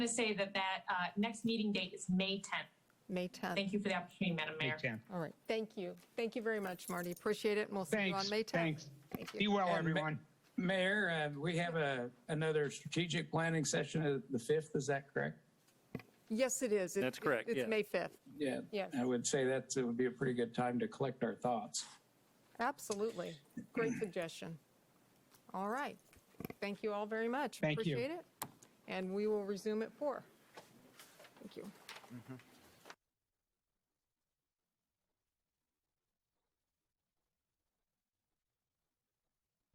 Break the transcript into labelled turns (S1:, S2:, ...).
S1: to say that that uh, next meeting date is May 10th.
S2: May 10th.
S1: Thank you for the opportunity, Madam
S3: May
S1: Mayor.
S3: 10th.
S2: All right, thank you. Thank you very much, Marty. Appreciate it, and we'll see you on
S3: Thanks,
S2: May 10th.
S3: thanks.
S2: Thank
S3: Be
S2: you.
S3: well,
S4: And Ma-
S3: everyone.
S4: Mayor, uh, we have a, another strategic planning session of the 5th, is that correct?
S2: Yes, it is. It's-
S5: That's correct,
S2: It's
S5: yes.
S2: May 5th.
S4: Yeah.
S2: Yes.
S4: I would say that would be a pretty good time to collect our thoughts.
S2: Absolutely. Great suggestion. All right. Thank you all very much.
S3: Thank you.
S2: Appreciate it. And we will resume at four. Thank you.